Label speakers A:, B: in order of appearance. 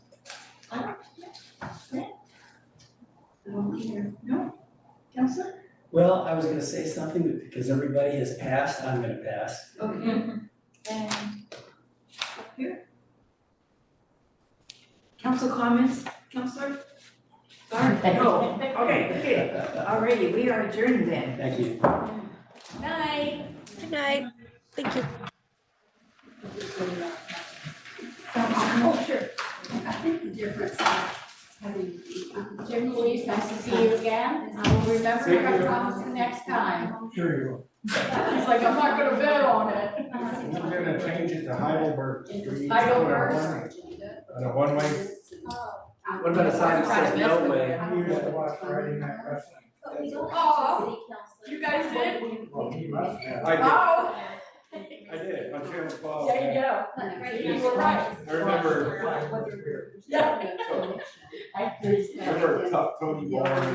A: one here. No? Counselor?
B: Well, I was gonna say something, but because everybody has passed, I'm gonna pass.
A: Okay. And up here? Council comments, Counselor? Sorry, no. Okay, okay. Alrighty, we are adjourned then.
B: Thank you.
A: Night.
C: Good night. Thank you.
D: Oh, sure. I think the difference of having, um, Jim Louise, nice to see you again. I will remember
B: Thank
D: your
B: you.
D: promise the next time.
E: Sure you
D: He's like, I'm not gonna bet on
E: will.
D: it.
E: I'm gonna change it to Heidelberg Street.
D: I don't
E: on a
D: know.
E: one- On a one-way.
B: What about a sign that says no way?
E: We used to watch Friday Night Wrestling.
F: But we don't
D: Oh,
F: have to city council.
D: you guys did?
E: Well, he must have.
D: Oh,
E: I did, on Channel twelve.
D: there you go.
F: Right,
D: You
F: that's
D: were right.
F: fine.
E: I remember,
D: Yeah.
E: I remember tough Tony Ball.